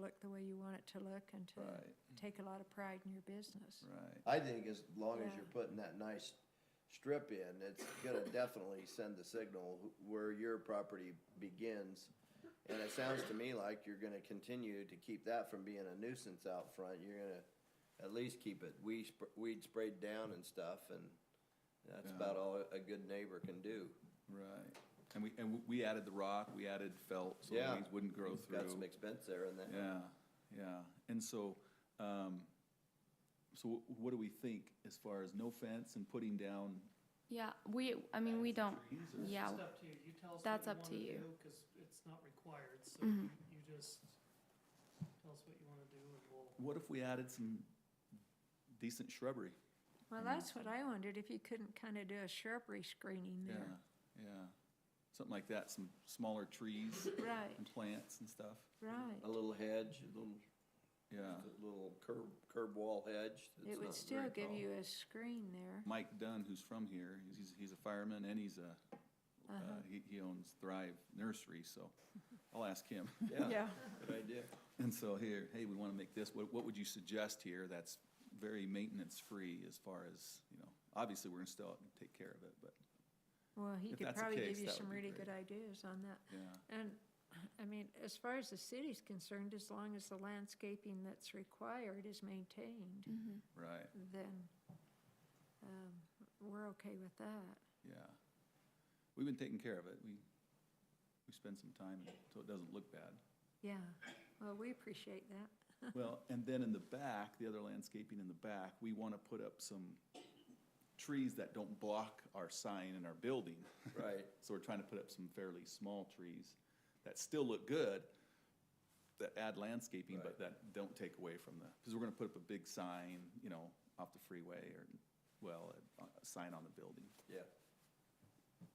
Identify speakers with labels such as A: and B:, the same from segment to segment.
A: look the way you want it to look and to
B: Right,
A: take a lot of pride in your business.
B: right.
C: I think as long as you're
A: Yeah.
C: putting that nice strip in, it's gonna definitely send the signal where your property begins. And it sounds to me like you're gonna continue to keep that from being a nuisance out front. You're gonna at least keep it weed, sp- weed sprayed down and stuff and that's
B: Yeah.
C: about all a good neighbor can do.
B: Right. And we, and we added the rock, we added felt, so the
C: Yeah.
B: weeds wouldn't grow
C: It's Got some
B: through.
C: expense there in that.
B: Yeah, yeah. And so, um, so wh- what do we think as far as no fence and putting down?
D: Yeah, we, I mean, we don't,
B: trees or-
D: yeah.
E: It's up to you, you tell us
D: That's
E: what
D: up to
E: you
D: you. Mm-hmm.
E: wanna do, cause it's not required, so you you just tell us what you wanna do and we'll.
B: What if we added some decent shrubbery? Mm-hmm.
A: Well, that's what I wondered, if you couldn't kind of do a shrubbery screening
B: Yeah,
A: there.
B: yeah. Something like that, some smaller trees
A: Right,
B: and plants and stuff.
A: right.
C: A little hedge, a little,
B: Yeah.
C: a little curb, curb wall hedge. that's
A: It would
C: not
A: still
C: very
A: give
C: tall.
A: you a screen there.
B: Mike Dunn, who's from here, he's- he's, he's a fireman and he's a, uh, he, he owns Thrive Nursery, so I'll ask him.
C: Yeah, good idea.
B: And so here, hey, we want to make this, what, what would you suggest here that's very maintenance-free as far as, you know, obviously, we're going to still take care of it, but,
A: Well, he
B: If
A: could
B: that's the
A: probably
B: case,
A: give you
B: that would
A: some
B: be
A: really
B: great.
A: good ideas on that.
B: yeah.
A: And, I mean, as far as the city's concerned, as long as the landscaping that's required is maintained,
B: Right,
A: then, um, we're okay with that.
B: yeah. We've been taking care of it. We, we spend some time so it doesn't look bad.
A: Yeah, well, we appreciate that.
B: Well, and then in the back, the other landscaping in the back, we want to put up some trees that don't block our sign and our building.
C: Right.
B: So we're trying to put up some fairly small trees that still look good, that add landscaping, but
C: Right.
B: that don't take away from the, because we're gonna put up a big sign, you know, off the freeway or, well, a, a sign on the building.
C: Yeah.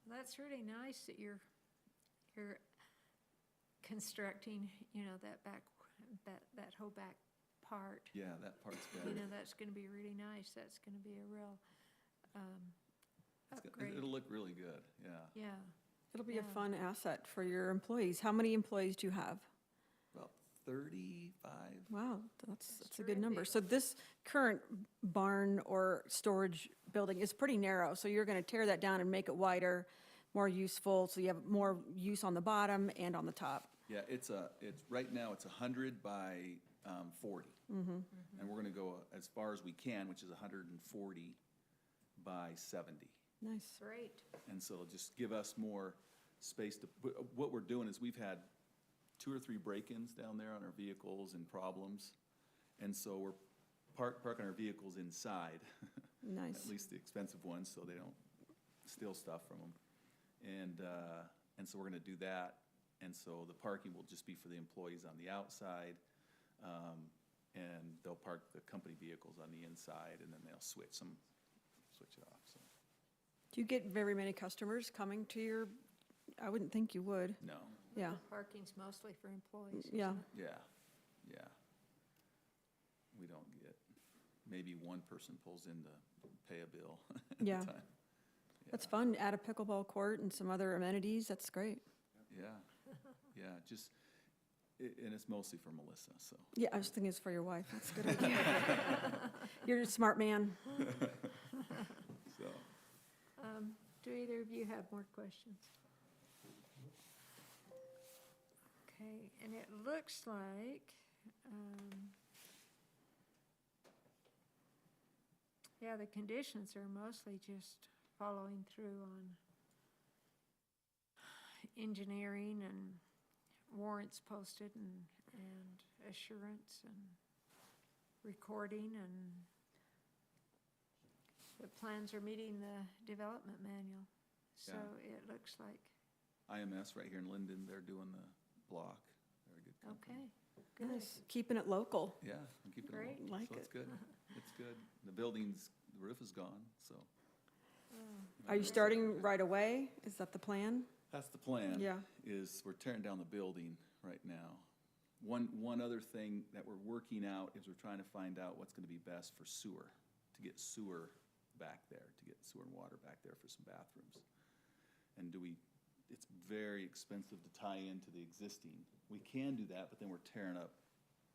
A: That's really nice that you're, you're constructing, you know, that back, that, that whole back part.
B: Yeah, that part's
A: You
B: better.
A: know, that's gonna be really nice, that's gonna be a real, um,
B: It's go-
A: upgrade.
B: It'll look really good, yeah.
A: Yeah,
F: It'll be a
A: Yeah.
F: fun asset for your employees. How many employees do you have?
B: About thirty-five?
F: Wow, that's,
A: That's
F: that's a good number.
A: terrific.
F: So this current barn or storage building is pretty narrow, so you're gonna tear that down and make it wider, more useful, so you have more use on the bottom and on the top.
B: Yeah, it's a, it's, right now, it's a hundred by, um, 40 Mm-hmm. And we're gonna go as far as we can, which is hundred and forty by seventy.
F: Nice.
A: great,
B: And so it'll just give us more space to, wh- what we're doing is we've had two or three break-ins down there on our vehicles and problems. And so we're park, parking our vehicles inside.
F: Nice.
B: At least the expensive ones, so they don't steal stuff from them. And, uh, and so we're gonna do that. And so the parking will just be for the employees on the outside. um, And they'll park the company vehicles on the inside and then they'll switch some, switch it off, so.
F: Do you get very many customers coming to your, I wouldn't think you would.
B: No,
F: Yeah,
A: parking's mostly for employees. isn't
F: yeah.
A: it?
B: Yeah, yeah. We don't get, maybe one person pulls in to pay a bill. at a
F: Yeah.
B: time.
F: That's
B: Yeah,
F: fun. Add a pickleball court and some other amenities. That's great.
B: Yeah, yeah, just, i- and it's mostly for Melissa, so.
F: Yeah, I was thinking it's for your wife. That's a good idea. You're a smart man.
B: So,
A: Um, Do either of you have more questions? Okay, and it looks like, um, yeah, the conditions are mostly just following through on engineering and warrants posted and, and assurance and recording and the plans are meeting the development manual, so it looks like,
B: IMS right here in Linden, they're doing the block. Very good company.
A: okay, good.
F: Nice. Keeping it local.
B: Yeah, I'm keeping it
A: Great.
B: open.
F: Like
B: So it's
F: it.
B: good, it's good. The building's, the roof is gone, so.
F: Are you starting right away? Is that the plan?
B: That's the plan.
F: Yeah.
B: Is we're tearing down the building right now. One, one other thing that we're working out is we're trying to find out what's gonna be best for sewer, to get sewer back there, to get sewer and water back there for some bathrooms. And do we, it's very expensive to tie into the existing. We can do that, but then we're tearing up